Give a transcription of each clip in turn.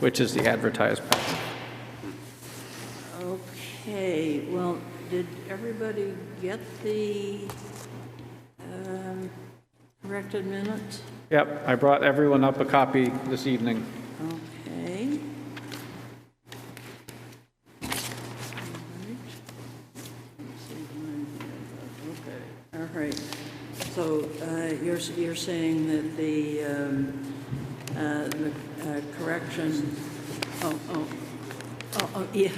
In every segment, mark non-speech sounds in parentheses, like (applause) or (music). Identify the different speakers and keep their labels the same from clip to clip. Speaker 1: which is the advertised part.
Speaker 2: Okay, well, did everybody get the um, corrected minutes?
Speaker 1: Yep, I brought everyone up a copy this evening.
Speaker 2: Okay. All right, so uh, you're, you're saying that the, um, uh, the uh, correction, oh, oh, oh, oh, yeah,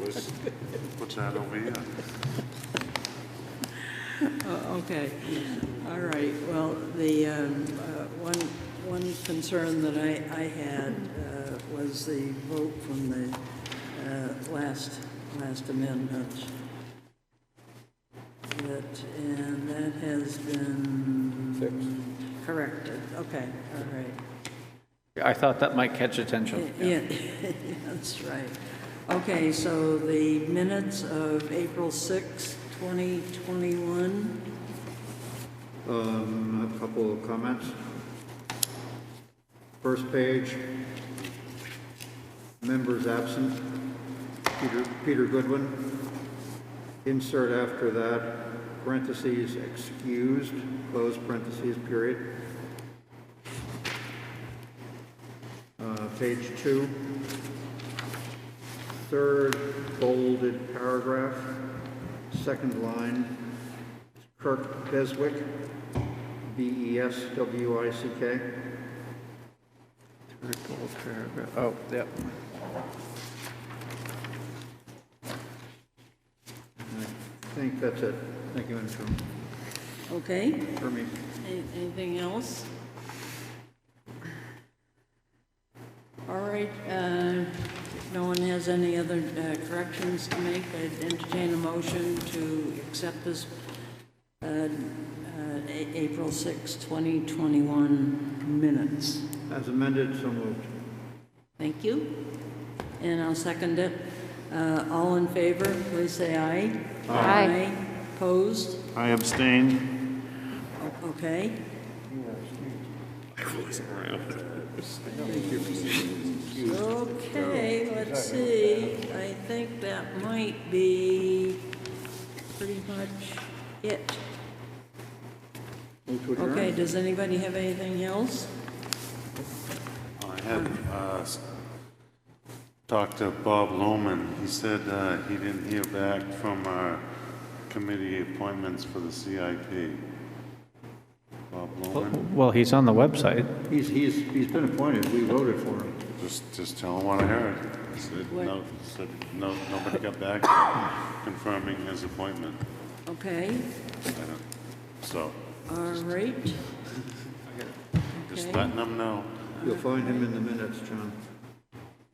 Speaker 3: What's what's that over here?
Speaker 2: Oh, Okay, all right, well, the, um, uh, one, one concern that I, I had uh, was the vote from the uh, last, last amendment. That, and that has been corrected, okay, all right.
Speaker 1: I thought that might catch attention.
Speaker 2: Yeah, (laughs) that's right. Okay, so the minutes of April sixth, twenty 2021,
Speaker 4: Um, I have a couple of comments. First page, members absent, Peter, Peter Goodwin. Insert after that, parentheses, excused, close parentheses, period. Uh, page two, third bolded paragraph, second line, Kirk Beswick, E B-E-S-W-I-C-K.
Speaker 1: Oh, yep.
Speaker 4: And I think that's it. Thank you, Madam Chairman,
Speaker 2: okay?
Speaker 4: for me.
Speaker 2: Any- Anything else? All right, uh, if no one has any other uh, corrections to make, I'd entertain a motion to accept this uh, uh, A- April 6, 2021 minutes.
Speaker 4: As amended, so moved.
Speaker 2: Thank you. And I'll second it. Uh, All in favor, please say aye. Aye. Opposed?
Speaker 3: I abstain.
Speaker 2: O- Okay. Okay, let's see, I think that might be pretty much it.
Speaker 4: Move to adjourn.
Speaker 2: Okay, does anybody have anything else?
Speaker 3: I have uh, s- talked to Bob Lohman. He said uh, he didn't hear back from our committee appointments for the CIP. Bob Lohman,
Speaker 1: Well, he's on the website.
Speaker 4: He's, he's, he's been appointed. We voted for him.
Speaker 3: just, just tell him what I heard. He said, no, said, no, nobody got back to him confirming his appointment.
Speaker 2: Okay,
Speaker 3: I don't- So,
Speaker 2: all right.
Speaker 3: just
Speaker 2: Okay.
Speaker 3: letting them know
Speaker 4: You'll find him in the minutes, John.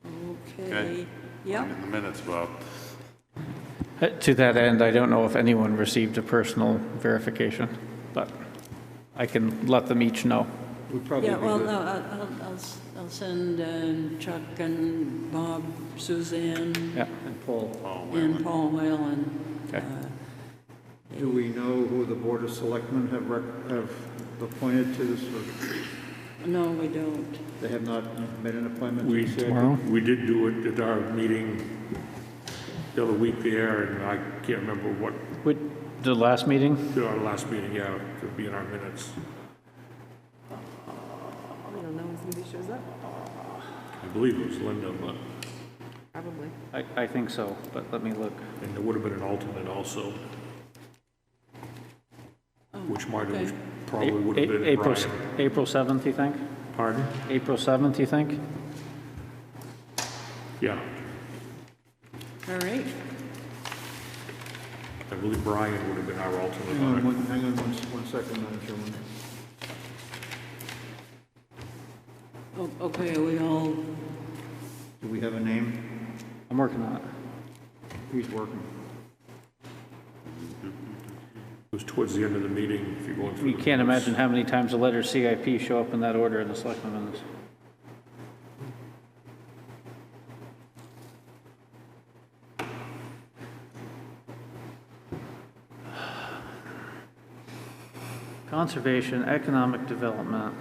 Speaker 2: Okay,
Speaker 3: Okay.
Speaker 2: yep,
Speaker 3: in the minutes, Bob.
Speaker 1: Uh, To that end, I don't know if anyone received a personal verification, but I can let them each know.
Speaker 4: Would probably be
Speaker 2: yeah, well, no,
Speaker 4: good.
Speaker 2: I'll, I'll- I'll, s- I'll send um, Chuck and Bob, Suzanne,
Speaker 1: Yeah.
Speaker 4: And Paul,
Speaker 3: Paul Whelan.
Speaker 2: and Paul Whalen.
Speaker 1: Okay.
Speaker 4: do we know who the Board of Selectmen have rec, have appointed to this? or
Speaker 2: No, we don't.
Speaker 4: They have not made an appointment? to
Speaker 5: We,
Speaker 4: the CIP?
Speaker 5: we did do it at our meeting the other week there, and I can't remember what,
Speaker 1: Would, the last meeting?
Speaker 5: did our last meeting, yeah, to be in our minutes.
Speaker 6: We don't know when somebody shows up,
Speaker 5: I believe it was Linda, but,
Speaker 6: probably.
Speaker 1: I, I think so, but let me look.
Speaker 5: and there would have been an alternate also.
Speaker 6: Oh,
Speaker 5: Which might have, probably would have
Speaker 1: A-
Speaker 5: been
Speaker 1: April, s-
Speaker 5: Brian.
Speaker 1: April 7th, you think?
Speaker 5: Pardon?
Speaker 1: April 7th, you think?
Speaker 5: Yeah,
Speaker 2: All right,
Speaker 5: I believe Brian would have been our alternate
Speaker 4: Hang on
Speaker 5: on it.
Speaker 4: one, hang on one, s- one second, Madam Chairman.
Speaker 2: O- Oh, okay, are we all,
Speaker 4: Do we have a name?
Speaker 1: I'm working on it.
Speaker 4: He's working.
Speaker 5: It was towards the end of the meeting, if you're going through.
Speaker 1: You
Speaker 5: the
Speaker 1: can't
Speaker 5: minutes.
Speaker 1: imagine how many times the letters CIP show up in that order in the selectmen minutes. Conservation, economic development.